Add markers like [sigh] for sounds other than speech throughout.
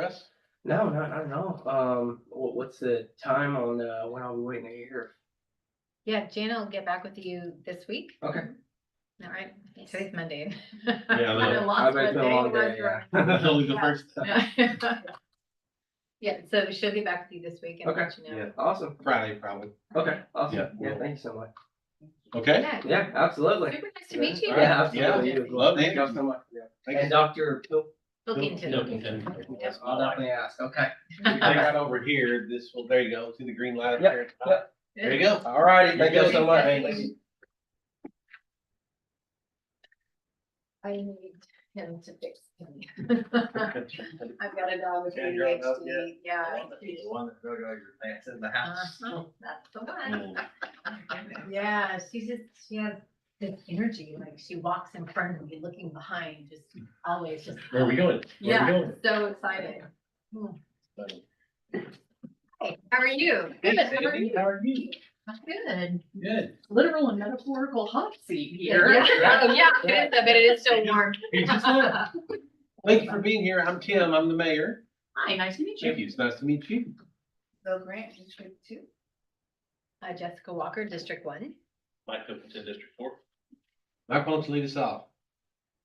Chris? No, no, I don't know. Um, wha- what's the time on, uh, when I'll be waiting to hear? Yeah, Jana will get back with you this week. Okay. All right, today's Monday. [laughs] Yeah, I know. I've been a long day, yeah. Only the Yeah. first. Yeah. [laughs] Yeah, so she'll get back with you this week and let you know. Yeah. Awesome. Friday, probably. Okay, Yeah. awesome. Yeah, thank you so much. Okay, Yeah, Yeah, absolutely. super nice to meet you. All Yeah, right. Yeah. absolutely. You as well. Love Thank meeting you you. so much. Yeah. Thank And you. Dr. Pil- Look into No, it. contend. [laughs] Yes, I'll definitely ask. Okay. If I got over here, this will, there you go, see the green light up Yep, there. yep. [laughs] There you go. All righty. Thank you so much. Thank you. I need him to fix me. [laughs] I've got a dog with Yeah, you're on up ADHD, yeah. one that drug all your pants in the Uh-huh, That's the one. Mm. Yeah, she just, she has this energy, like she walks in front of me, looking behind, just always just. Where are we going? Where are Yeah, we going? so excited. Buddy. Hey, how are you? Hey, Good, how are Sandy, you? how are you? I'm Good. Good. literal and metaphorical hot seat here. Yeah, oh, [laughs] yeah, it is, I bet it is still warm. [laughs] uh, Thank you for being here. I'm Tim. I'm the mayor. Hi, nice to meet you. Thank you. It's nice to meet you. Bill Grant, District Two. Uh, Jessica Walker, District One. Mike Cooperton, District Four. Mike, why don't you lead us off?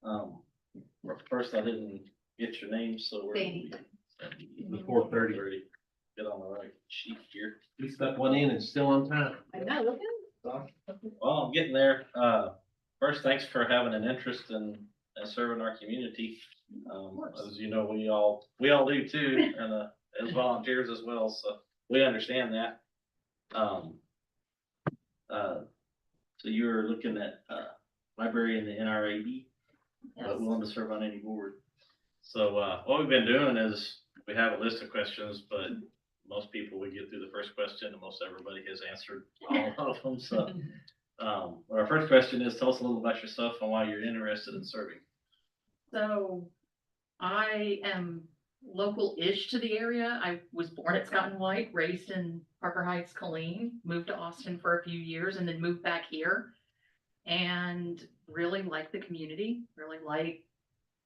Um, first, I didn't get your name, so we're. Sandy. Before thirty. Get on the right sheet here. We stuck one in and still on time. I know, look at Well, I'm getting there. Uh, first, thanks for having an interest in, in serving our community. Um, as you know, we all, we all do too, and, uh, as volunteers as well, so we understand that. Um, uh, so you're looking at, uh, library in the NRAB, but him. willing to serve on any board. So, uh, what we've been doing is, we have a list of questions, but most people, we get through the first question, and most everybody has answered all of them, so. Um, but our first question is, tell us a little about yourself and why you're interested in serving. So I am local-ish to the area. I was born at Scott and White, raised in Parker Heights, Colleen, moved to Austin for a few years and then moved back here. And really like the community, really like,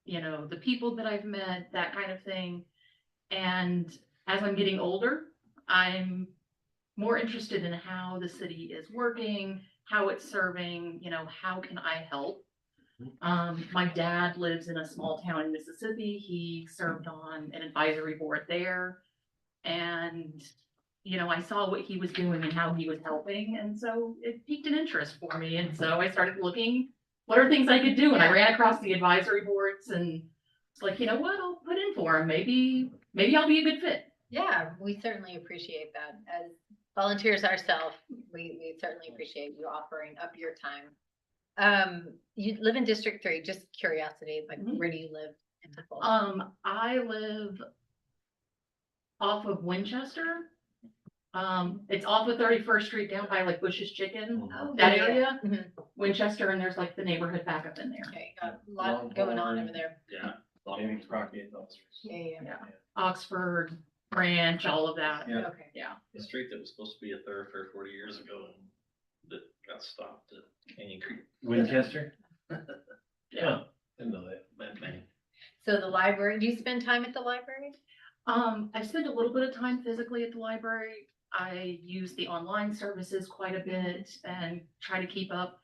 you know, the people that I've met, that kind of thing. And as I'm getting older, I'm more interested in how the city is working, how it's serving, you know, how can I help? Um, my dad lives in a small town in Mississippi. He served on an advisory board there. And, you know, I saw what he was doing and how he was helping, and so it piqued an interest for me, and so I started looking. What are things I could do? And I ran across the advisory boards and it's like, you know what, I'll put in for him. Maybe, maybe I'll be a good fit. Yeah, we certainly appreciate that. As volunteers ourselves, we, we certainly appreciate you offering up your time. Um, you live in District Three, just curiosity, like Mhm. where do you live? in Tupelo? Um, I live off of Winchester. Um, it's off of Thirty-first Street down by like Bush's Chicken, Oh, that yeah, yeah. area, Mhm. Winchester, and there's like the neighborhood back up in there. Okay, got a lot going on over there. Yeah. Maybe Crockett. Yeah, yeah, Oxford, Branch, all of that. yeah, Yeah. okay. The street that was supposed to be a thoroughfare forty years ago and that got stopped at Canyon Creek. Winchester? Yeah. Didn't know that. But man, So the library, do you spend time at the library? Um, I spend a little bit of time physically at the library. I use the online services quite a bit and try to keep up.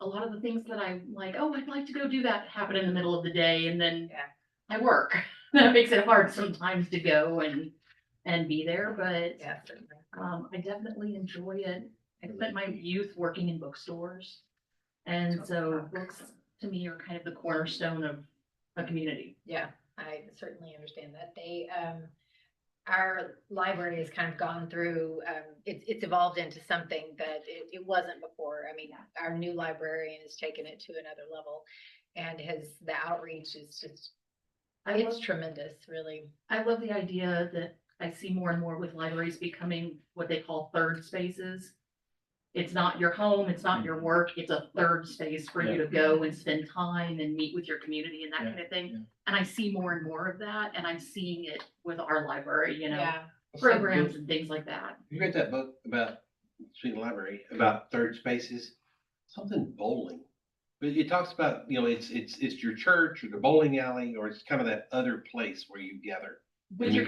A lot of the things that I'm like, oh, I'd like to go do that happen in the middle of the day and then Yeah. I work. [laughs] That makes it hard sometimes to go and, and be there, but, Yeah, certainly. um, I definitely enjoy it. I spent my youth working in bookstores. Oh, And so books to me are kind of the cornerstone of a community. Yeah, I certainly understand that. They, um, our library has kind of gone through, um, it's, it's evolved into something that it, it wasn't before. I mean, our new librarian has taken it to another level and has, the outreach is just, I it's love- tremendous, really. I love the idea that I see more and more with libraries becoming what they call third spaces. It's not your home, it's not your work, it's a third space for you to go and spend time and meet with your community and that Yeah, kind of yeah. thing. And I see more and more of that, and I'm seeing it with our library, you know, Yeah, programs and things like that. You read that book about, speaking of library, about third spaces, something bowling. But it talks about, you know, it's, it's, it's your church or the bowling alley, or it's kind of that other place where you gather. With your